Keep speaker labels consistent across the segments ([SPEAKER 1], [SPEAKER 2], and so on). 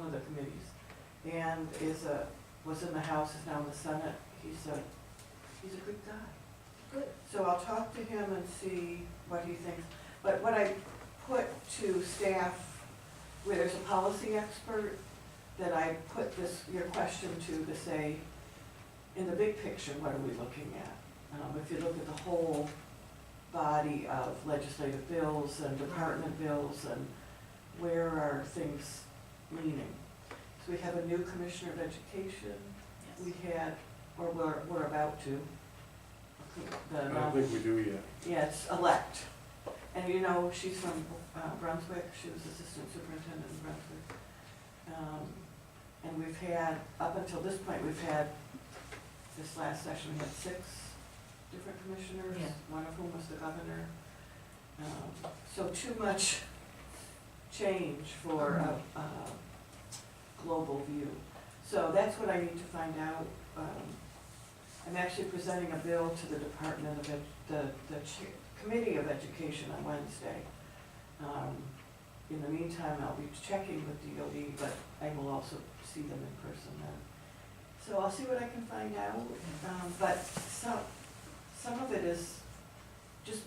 [SPEAKER 1] committees. And is a, was in the House, is now in the Senate. He's a, he's a good guy.
[SPEAKER 2] Good.
[SPEAKER 1] So I'll talk to him and see what he thinks. But what I put to staff, where there's a policy expert, that I put this, your question to, to say, in the big picture, what are we looking at? Um, if you look at the whole body of legislative bills and department bills and where are things leaning? So we have a new commissioner of education, we
[SPEAKER 2] Yes.
[SPEAKER 1] had, or we're, we're about to. The,
[SPEAKER 3] I don't think Uh, we do yet.
[SPEAKER 1] yes, elect. And you know, she's from uh, Brunswick, she was assistant superintendent in Brunswick. Um, And we've had, up until this point, we've had, this last session, we had six different commissioners,
[SPEAKER 2] Yeah.
[SPEAKER 1] one of whom was the governor. Um, So too much change for a, a global view. So that's what I need to find out. Um, I'm actually presenting a bill to the Department of, Ed- the, the Ch- Committee of Education on Wednesday. Um, In the meantime, I'll be checking with DOE, but I will also see them in person then. So I'll see what I can find out, um, but some, some of it is just,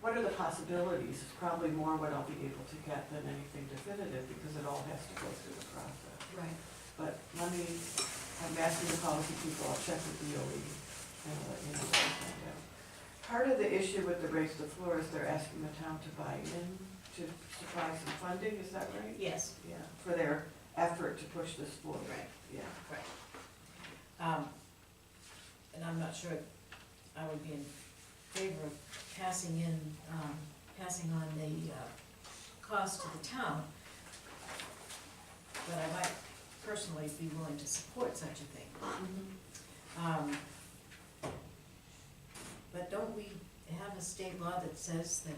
[SPEAKER 1] what are the possibilities? Is probably more what I'll be able to get than anything definitive, because it all has to go through the process.
[SPEAKER 2] Right.
[SPEAKER 1] But let me, I'm asking the policy people, I'll check with DOE and let you know what I find out. Part of the issue with the raise the floor is they're asking the town to buy in, to supply some funding, is that right?
[SPEAKER 2] Yes,
[SPEAKER 1] Yeah, for their effort to push this forward.
[SPEAKER 2] Right.
[SPEAKER 1] Yeah.
[SPEAKER 2] um, and I'm not sure I would be in favor of passing in, um, passing on the, uh, cost to the town. But I might personally be willing to support such a thing. Um, But don't we have a state law that says that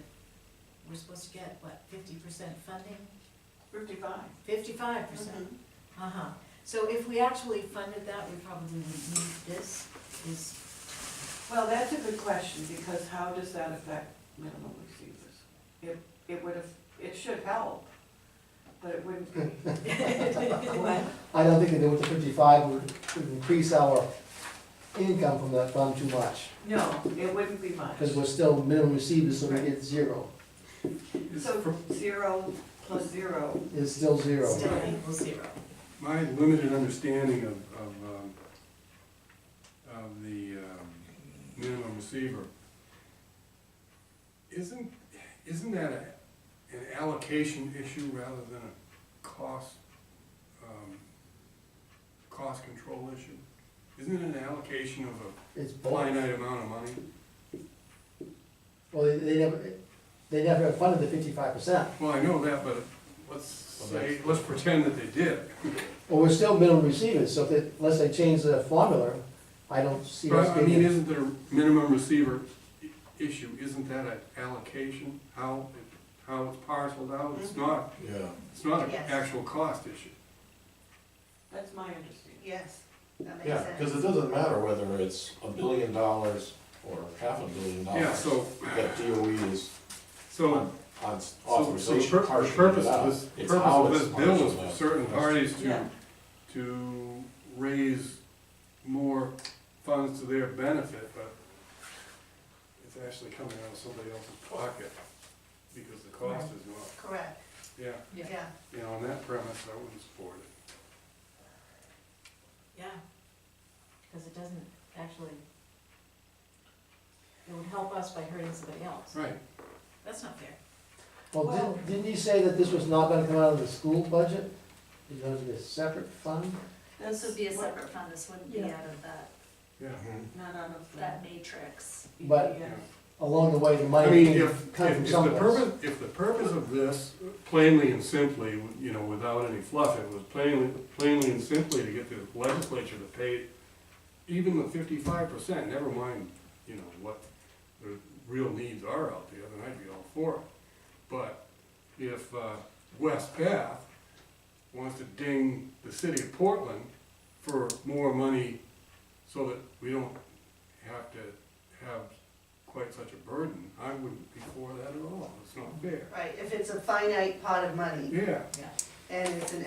[SPEAKER 2] we're supposed to get, what, fifty percent funding?
[SPEAKER 1] Fifty-five.
[SPEAKER 2] Fifty-five percent? Uh-huh, so if we actually funded that, we probably would need this, is,
[SPEAKER 1] Well, that's a good question, because how does that affect minimum receivers? It, it would have, it should help, but it wouldn't be. What?
[SPEAKER 4] I don't think that doing the fifty-five would, would increase our income from that fund too much,
[SPEAKER 1] No, it wouldn't be much.
[SPEAKER 4] because we're still minimum receivers, so we get zero,
[SPEAKER 1] So zero plus zero.
[SPEAKER 4] is still zero.
[SPEAKER 2] still equals zero.
[SPEAKER 3] My limited understanding of, of, um, of the, um, minimum receiver, isn't, isn't that a- an allocation issue rather than a cost, um, cost control issue? Isn't it an allocation of a
[SPEAKER 4] It's boring.
[SPEAKER 3] finite amount of money?
[SPEAKER 4] Well, they, they never, they never funded the fifty-five percent,
[SPEAKER 3] Well, I know that, but let's say, let's pretend that they did.
[SPEAKER 4] Well, we're still minimum receivers, so if, they- unless they change the formula, I don't see us
[SPEAKER 3] But I mean,
[SPEAKER 4] getting.
[SPEAKER 3] isn't there a minimum receiver i- issue, isn't that an allocation, how, it- how it's parceled out? It's not,
[SPEAKER 5] Yeah,
[SPEAKER 3] it's not an
[SPEAKER 6] Yes.
[SPEAKER 3] actual cost issue.
[SPEAKER 1] That's my understanding.
[SPEAKER 6] Yes, that makes
[SPEAKER 5] yeah,
[SPEAKER 6] sense.
[SPEAKER 5] because it doesn't matter whether it's a billion dollars or half a billion dollars.
[SPEAKER 3] Yeah, so,
[SPEAKER 5] That DOE is
[SPEAKER 3] so,
[SPEAKER 5] on
[SPEAKER 3] so so the
[SPEAKER 5] authorization
[SPEAKER 3] pur- the
[SPEAKER 5] partially
[SPEAKER 3] purpose
[SPEAKER 5] it out.
[SPEAKER 3] of this, the
[SPEAKER 5] It's
[SPEAKER 3] purpose
[SPEAKER 5] how
[SPEAKER 3] of
[SPEAKER 5] it's
[SPEAKER 3] this bill is
[SPEAKER 5] partially
[SPEAKER 3] for
[SPEAKER 5] out.
[SPEAKER 3] certain parties
[SPEAKER 1] Yeah.
[SPEAKER 3] to, to raise more funds to their benefit, but it's actually coming out of somebody else's pocket, because the cost is not,
[SPEAKER 6] Correct,
[SPEAKER 3] yeah,
[SPEAKER 2] Yeah.
[SPEAKER 6] yeah.
[SPEAKER 3] you know, on that premise, I wouldn't support it.
[SPEAKER 2] Yeah, because it doesn't actually, it would help us by hurting somebody else,
[SPEAKER 3] Right,
[SPEAKER 2] that's not fair.
[SPEAKER 4] Well,
[SPEAKER 1] Well-
[SPEAKER 4] didn't, didn't you say that this was not gonna come out of the school budget? It's gonna be a separate fund?
[SPEAKER 6] That's
[SPEAKER 7] This would be a
[SPEAKER 1] what-
[SPEAKER 7] separate fund, this wouldn't be
[SPEAKER 6] Yeah.
[SPEAKER 7] out of that,
[SPEAKER 3] yeah.
[SPEAKER 1] Not out of
[SPEAKER 7] that
[SPEAKER 1] the
[SPEAKER 7] matrix.
[SPEAKER 4] But-
[SPEAKER 1] EPS.
[SPEAKER 4] Along the way, the
[SPEAKER 3] I
[SPEAKER 4] money
[SPEAKER 3] mean,
[SPEAKER 4] can
[SPEAKER 3] if,
[SPEAKER 4] come
[SPEAKER 3] if
[SPEAKER 4] from
[SPEAKER 3] if the
[SPEAKER 4] somewhere.
[SPEAKER 3] purpose, if the purpose of this, plainly and simply, you know, without any fluff, it was plainly, plainly and simply to get the legislature to pay even the fifty-five percent, never mind, you know, what the real needs are out there, then I'd be all for it. But if, uh, West Bath wants to ding the city of Portland for more money so that we don't have to have quite such a burden, I wouldn't be for that at all, it's not fair.
[SPEAKER 6] Right, if it's a finite pot of money
[SPEAKER 3] Yeah.
[SPEAKER 6] and it's an